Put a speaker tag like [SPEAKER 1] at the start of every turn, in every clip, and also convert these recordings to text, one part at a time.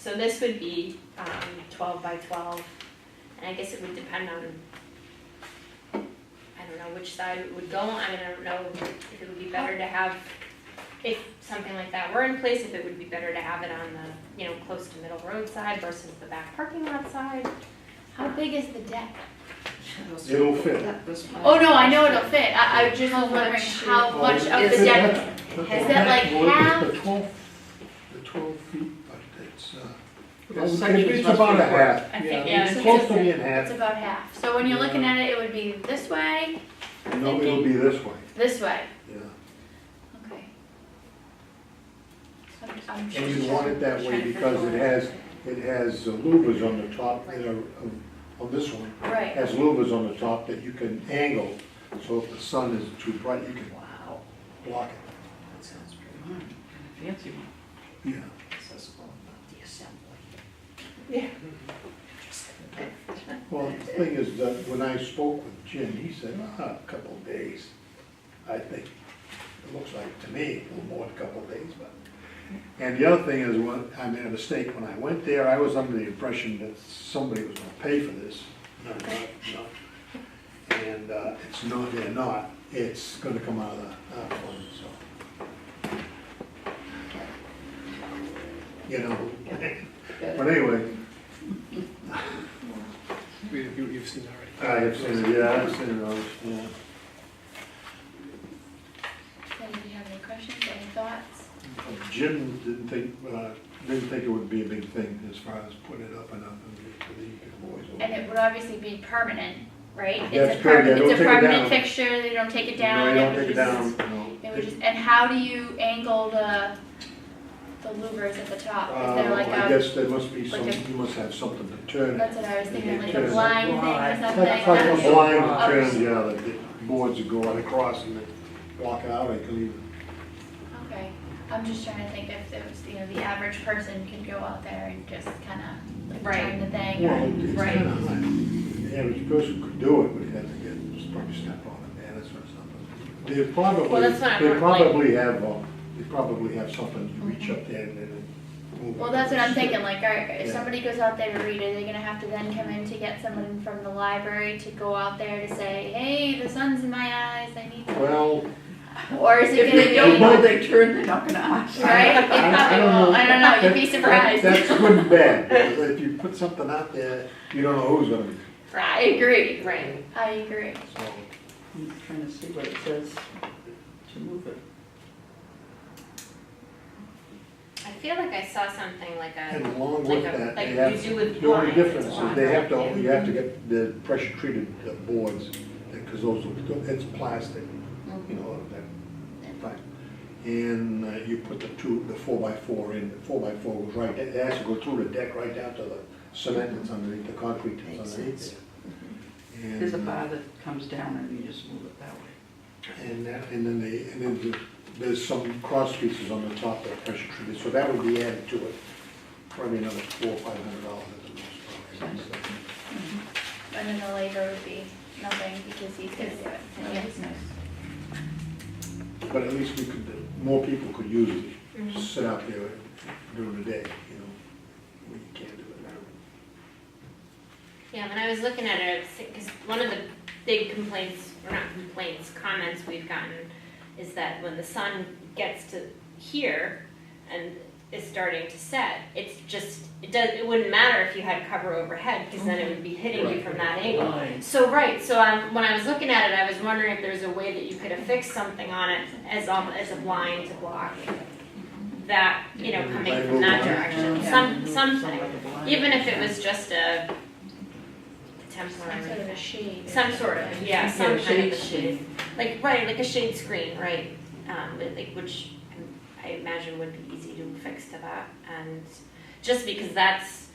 [SPEAKER 1] So this would be, um, twelve by twelve, and I guess it would depend on, I don't know which side it would go on, I don't know if it would be better to have, if something like that were in place, if it would be better to have it on the, you know, close to middle road side versus the back parking lot side.
[SPEAKER 2] How big is the deck?
[SPEAKER 3] It'll fit.
[SPEAKER 2] Oh, no, I know it'll fit, I, I just
[SPEAKER 4] How
[SPEAKER 2] was wondering
[SPEAKER 4] much-
[SPEAKER 2] how much of
[SPEAKER 4] is
[SPEAKER 2] the
[SPEAKER 4] it?
[SPEAKER 2] deck,
[SPEAKER 3] Has
[SPEAKER 2] that like half?
[SPEAKER 3] The twelve, the twelve feet, but it's, uh,
[SPEAKER 5] Because
[SPEAKER 3] it's-
[SPEAKER 5] sections
[SPEAKER 3] it's
[SPEAKER 5] must
[SPEAKER 3] about
[SPEAKER 5] be
[SPEAKER 3] a half.
[SPEAKER 1] I think,
[SPEAKER 2] yeah,
[SPEAKER 3] It's
[SPEAKER 2] it's
[SPEAKER 3] close
[SPEAKER 2] just
[SPEAKER 3] to
[SPEAKER 2] a-
[SPEAKER 3] being half.
[SPEAKER 2] it's about half, so when you're looking at it, it would be this way,
[SPEAKER 3] No, it'll be this way,
[SPEAKER 2] this way,
[SPEAKER 3] yeah.
[SPEAKER 2] okay. I'm- I'm
[SPEAKER 3] And
[SPEAKER 2] just-
[SPEAKER 3] you want it that way because it has, it has uh, louvers on the top, you know, of- of this one.
[SPEAKER 2] Right,
[SPEAKER 3] Has louvers on the top that you can angle, so if the sun is too bright, you can
[SPEAKER 4] Wow,
[SPEAKER 3] block it.
[SPEAKER 4] that sounds pretty hard. Fancy one.
[SPEAKER 3] Yeah.
[SPEAKER 4] Accessible, not the assembly.
[SPEAKER 1] Yeah.
[SPEAKER 3] Well, the thing is that when I spoke with Jim, he said, ah, a couple of days. I think, it looks like to me, a little more than a couple of days, but. And the other thing is, when, I made a mistake, when I went there, I was under the impression that somebody was gonna pay for this. No, no, no. And, uh, it's not, they're not, it's gonna come out of the, uh, fund, so. You know, but anyway,
[SPEAKER 5] You, have seen already.
[SPEAKER 3] I have seen it, yeah, I've seen it, all, yeah.
[SPEAKER 2] anybody have any questions, any thoughts?
[SPEAKER 3] Jim didn't think, uh, didn't think it would be a big thing as far as putting it up and up and the boys.
[SPEAKER 2] And it would obviously be permanent, right? It's a
[SPEAKER 3] That's correct,
[SPEAKER 2] permanent-
[SPEAKER 3] yeah, don't
[SPEAKER 2] It's a
[SPEAKER 3] take it
[SPEAKER 2] permanent
[SPEAKER 3] down.
[SPEAKER 2] fixture, they don't take it down.
[SPEAKER 3] No, you don't
[SPEAKER 2] would
[SPEAKER 3] take it
[SPEAKER 2] just-
[SPEAKER 3] down, no.
[SPEAKER 2] It would just, and how do you angle the, the louvers at the top? Is there
[SPEAKER 3] Uh, I
[SPEAKER 2] like a,
[SPEAKER 3] guess there must be some,
[SPEAKER 2] like a-
[SPEAKER 3] you must have something to turn. it.
[SPEAKER 2] that's what I was thinking, like a
[SPEAKER 3] Yeah.
[SPEAKER 2] blind thing or
[SPEAKER 4] Like-
[SPEAKER 2] something?
[SPEAKER 3] Like like a
[SPEAKER 2] That's-
[SPEAKER 3] blind
[SPEAKER 2] Oh,
[SPEAKER 3] turn, yeah, that the boards would go right across and then walk out, I can even.
[SPEAKER 2] Okay, I'm just trying to think if there was, you know, the average person could go out there and just kind of like
[SPEAKER 1] Right.
[SPEAKER 2] turn the thing or.
[SPEAKER 3] Well, it's
[SPEAKER 1] Right.
[SPEAKER 3] kinda like, the average person could do it, but you have to get, just probably step on a banister or something. They
[SPEAKER 1] Well,
[SPEAKER 3] probably,
[SPEAKER 1] that's what I'm
[SPEAKER 3] they
[SPEAKER 1] not like-
[SPEAKER 3] probably have, uh, they probably have something, you reach up there and then. move
[SPEAKER 2] Well,
[SPEAKER 3] it.
[SPEAKER 2] that's what I'm thinking, like, all right, if
[SPEAKER 3] Yeah.
[SPEAKER 2] somebody goes out there to read, are they gonna have to then come in to get someone from the library to go out there to say, hey, the sun's in my eyes, I need to?
[SPEAKER 3] Well,
[SPEAKER 2] Or is it
[SPEAKER 4] If they don't know
[SPEAKER 2] gonna be,
[SPEAKER 4] they turn, they're not gonna ask.
[SPEAKER 2] right, it
[SPEAKER 3] I-
[SPEAKER 2] probably will, I don't know, you'd be
[SPEAKER 3] That-
[SPEAKER 2] surprised.
[SPEAKER 3] That's good and bad, because if you put something out there, you don't know who's gonna be,
[SPEAKER 2] I agree,
[SPEAKER 1] Right,
[SPEAKER 2] I agree.
[SPEAKER 3] so.
[SPEAKER 4] I'm trying to see what it says to move it.
[SPEAKER 1] I feel like I saw something like a,
[SPEAKER 3] And along
[SPEAKER 1] like
[SPEAKER 3] with
[SPEAKER 1] a,
[SPEAKER 3] that,
[SPEAKER 1] like
[SPEAKER 3] they
[SPEAKER 1] you
[SPEAKER 3] have,
[SPEAKER 1] do with
[SPEAKER 3] the only
[SPEAKER 1] blinds.
[SPEAKER 3] difference
[SPEAKER 1] on
[SPEAKER 3] is they
[SPEAKER 1] that,
[SPEAKER 3] have to,
[SPEAKER 1] yeah.
[SPEAKER 3] you have to get the pressure treated uh, boards, because those, are- it's plastic, you know, that, fine. And uh, you put the two, the four by four in, the four by four goes right, it has to go through the deck right down to the cement that's underneath, the concrete
[SPEAKER 4] Makes
[SPEAKER 3] that's underneath
[SPEAKER 4] sense.
[SPEAKER 3] there. And,
[SPEAKER 4] There's a
[SPEAKER 3] uh,
[SPEAKER 4] bar that comes down and you just move it that way.
[SPEAKER 3] And that, and then they, and then the- there's some cross pieces on the top that are pressure treated, so that would be added to it. Probably another four, or five hundred dollars at the most. probably.
[SPEAKER 2] And then the labor would be nothing because he's gonna do it.
[SPEAKER 4] That's nice.
[SPEAKER 3] But at least we could, more people could use it,
[SPEAKER 4] Mm-hmm.
[SPEAKER 1] Mhm.
[SPEAKER 3] sit out there during the day, you know, when you can't do it now.
[SPEAKER 1] Yeah, when I was looking at it, because one of the big complaints, or not complaints, comments we've gotten is that when the sun gets to here and is starting to set, it's just, it does, it wouldn't matter if you had cover overhead, because then it would be hitting you from that angle. So, right, so um, when I was looking at it, I was wondering if there's a way that you could affix something on it as, um, as a blind to block that, you know, coming from that direction, some, something. Even if it was just a
[SPEAKER 2] Some sort of a
[SPEAKER 1] temporary,
[SPEAKER 2] shade. or
[SPEAKER 1] some sort of,
[SPEAKER 2] something.
[SPEAKER 1] yeah, some
[SPEAKER 4] Yeah,
[SPEAKER 1] kind of a
[SPEAKER 4] shade
[SPEAKER 1] shade. Like, right, like a shade screen, right, um, but like, which I imagine would be easy to fix to that, and just because that's,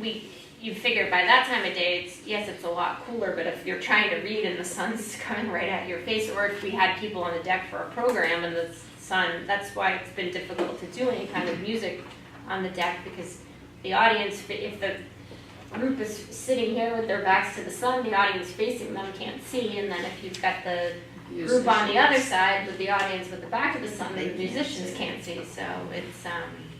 [SPEAKER 1] we, you figure by that time of day, it's, yes, it's a lot cooler, but if you're trying to read and the sun's coming right at your face, or if we had people on the deck for a program and the sun, that's why it's been difficult to do any kind of music on the deck, because the audience, if the group is sitting here with their backs to the sun, the audience facing them can't see, and then if you've got the group on the other side with the audience with the back of the sun, the musicians can't see, so it's, um,